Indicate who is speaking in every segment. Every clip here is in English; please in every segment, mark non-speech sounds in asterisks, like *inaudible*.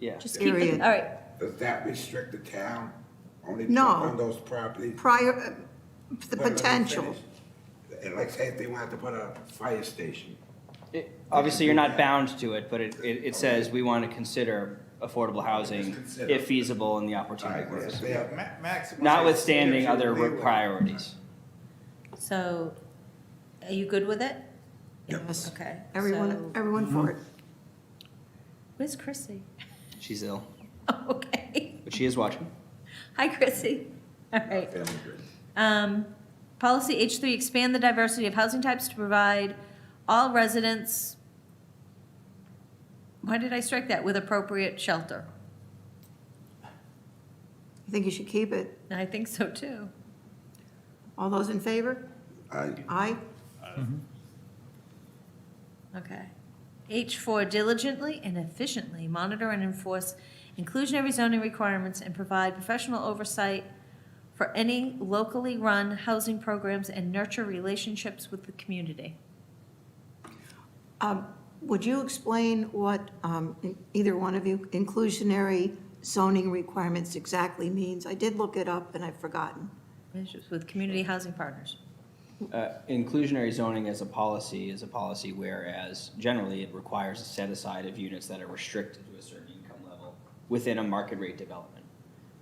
Speaker 1: Yeah.
Speaker 2: Just keep it,
Speaker 3: Period.
Speaker 2: all right.
Speaker 4: Does that restrict the town only
Speaker 3: No.
Speaker 4: on those properties?
Speaker 3: prior, uh, the
Speaker 4: Wait, let me
Speaker 3: potential.
Speaker 4: finish. And like say if they wanted to put a fire station,
Speaker 1: It- Obviously, you're not bound to it, but it, it, it says we want to consider affordable housing
Speaker 4: consider.
Speaker 1: if feasible and the opportunity
Speaker 4: alright, well, if
Speaker 1: works.
Speaker 4: they have-
Speaker 1: Notwithstanding
Speaker 4: Maximize
Speaker 1: other
Speaker 4: leeway.
Speaker 1: priorities.
Speaker 2: So, are you good with it?
Speaker 3: Yes.
Speaker 2: Okay.
Speaker 3: Everyone,
Speaker 2: so-
Speaker 3: everyone for it.
Speaker 2: Where's Chrissy? *laughs*
Speaker 1: She's ill,
Speaker 2: Okay.
Speaker 1: but she is watching.
Speaker 2: Hi, Chrissy. All right.
Speaker 4: family grid.
Speaker 2: Um, policy H three, expand the diversity of housing types to provide all residents. Why did I strike that? With appropriate shelter.
Speaker 3: I think you should keep it.
Speaker 2: I think so too.
Speaker 3: All those in favor?
Speaker 4: I-
Speaker 3: Aye.
Speaker 2: Okay. H4, diligently and efficiently monitor and enforce inclusionary zoning requirements and provide professional oversight for any locally run housing programs and nurture relationships with the community.
Speaker 3: Um, Would you explain what, um, either one of you, inclusionary zoning requirements exactly means? I did look it up and I've forgotten.
Speaker 2: Relationships With community housing partners.
Speaker 1: Uh, Inclusionary zoning as a policy is a policy whereas generally it requires a set aside of units that are restricted to a certain income level within a market rate development.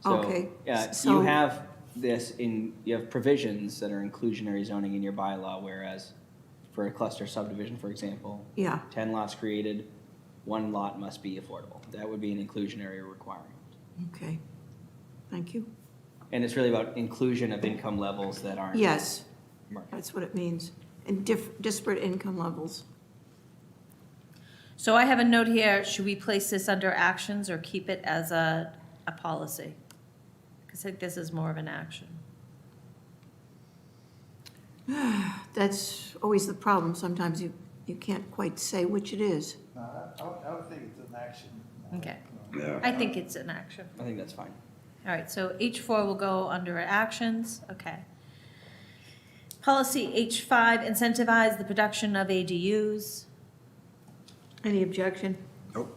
Speaker 1: So,
Speaker 3: Okay,
Speaker 1: uh, You
Speaker 3: so-
Speaker 1: have this in, you have provisions that are inclusionary zoning in your bylaw, whereas for a cluster subdivision, for example,
Speaker 3: Yeah,
Speaker 1: 10 lots created, one lot must be affordable. That would be an inclusionary requirement.
Speaker 3: okay. Thank you.
Speaker 1: And it's really about inclusion of income levels that aren't.
Speaker 3: Yes,
Speaker 1: market.
Speaker 3: that's what it means. And diff- disparate income levels.
Speaker 2: So I have a note here, should we place this under actions or keep it as a, a policy? Because I think this is more of an action.
Speaker 3: That's always the problem. Sometimes you, you can't quite say which it is.
Speaker 5: No, I- I would, I would think it's an action.
Speaker 2: Okay.
Speaker 4: Yeah.
Speaker 2: I think it's an action.
Speaker 1: I think that's fine.
Speaker 2: All right, so H4 will go under actions, okay. Policy H5, incentivize the production of ADUs,
Speaker 3: Any objection?
Speaker 4: Nope,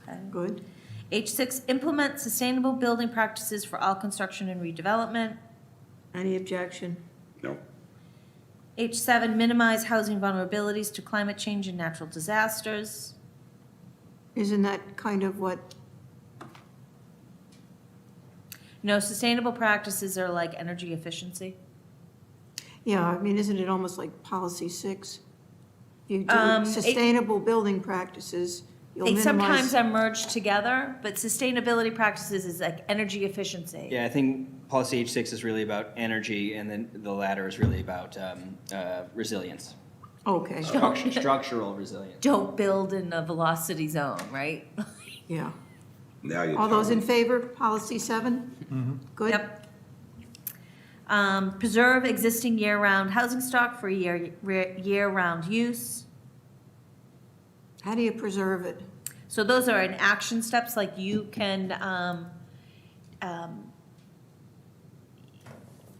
Speaker 2: okay.
Speaker 3: Good.
Speaker 2: H6, implement sustainable building practices for all construction and redevelopment.
Speaker 3: Any objection?
Speaker 4: nope,
Speaker 2: H7, minimize housing vulnerabilities to climate change and natural disasters.
Speaker 3: Isn't that kind of what,
Speaker 2: No, sustainable practices are like energy efficiency.
Speaker 3: yeah, I mean, isn't it almost like policy six? You
Speaker 2: Um,
Speaker 3: do
Speaker 2: it-
Speaker 3: sustainable building practices, you'll
Speaker 2: They sometimes
Speaker 3: minimize.
Speaker 2: are merged together, but sustainability practices is like energy efficiency.
Speaker 1: Yeah, I think policy H six is really about energy, and then the latter is really about um, uh, resilience,
Speaker 3: Okay,
Speaker 1: Structu- structural resilience.
Speaker 2: don't build in a velocity zone, right? *laughs*
Speaker 3: yeah.
Speaker 4: now you're.
Speaker 3: All those
Speaker 4: telling
Speaker 3: in
Speaker 4: me.
Speaker 3: favor, policy seven? Good.
Speaker 2: Yep. Um, preserve existing year-round housing stock for year, re- year-round use.
Speaker 3: How do you preserve it?
Speaker 2: So those are in action steps, like you can, um, um,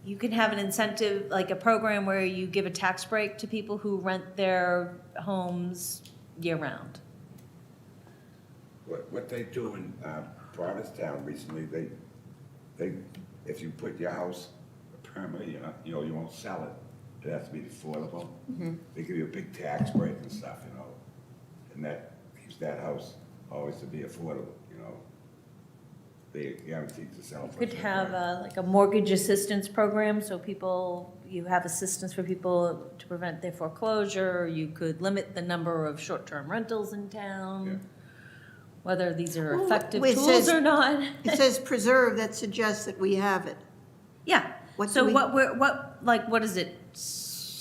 Speaker 2: you can have an incentive, like a program where you give a tax break to people who rent their homes year-round.
Speaker 4: What, what they do in, uh, Provincetown recently, they, they, if you put your house permanently, you know, you know, you won't sell it, it has to be affordable.
Speaker 2: Mm-hmm.
Speaker 4: They give you a big tax break and stuff, you know, and that keeps that house always to be affordable, you know? They guarantee to sell. for a
Speaker 2: Could
Speaker 4: certain
Speaker 2: have
Speaker 4: price.
Speaker 2: a, like a mortgage assistance program, so people, you have assistance for people to prevent their foreclosure. You could limit the number of short-term rentals in town, whether these are
Speaker 3: Well,
Speaker 2: effective
Speaker 3: wait, it
Speaker 2: tools
Speaker 3: says-
Speaker 2: or
Speaker 3: *laughs*
Speaker 2: not.
Speaker 3: It says preserve, that suggests that we have it.
Speaker 2: Yeah,
Speaker 3: What
Speaker 2: so
Speaker 3: do we-
Speaker 2: what, we're what, like, what is it,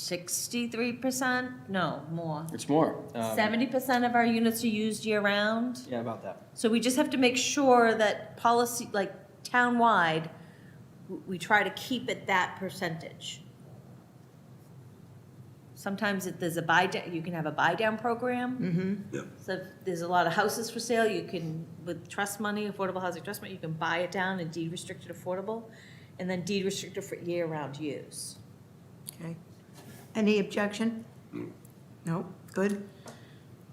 Speaker 2: sixty-three percent? No, more.
Speaker 1: It's more um,
Speaker 2: Seventy percent of our units are used year-round.
Speaker 1: Yeah, about that.
Speaker 2: So we just have to make sure that policy, like townwide, w- we try to keep it that percentage. Sometimes if there's a buy down, you can have a buy down program.
Speaker 3: Mm-hmm.
Speaker 2: So if there's a lot of houses for sale, you can, with trust money, affordable housing trust money, you can buy it down and deed restricted affordable, and then deed restricted for year-round use.
Speaker 3: Okay. Any objection? No, good.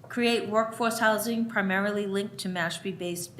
Speaker 2: Create workforce housing primarily linked to Mashpee-based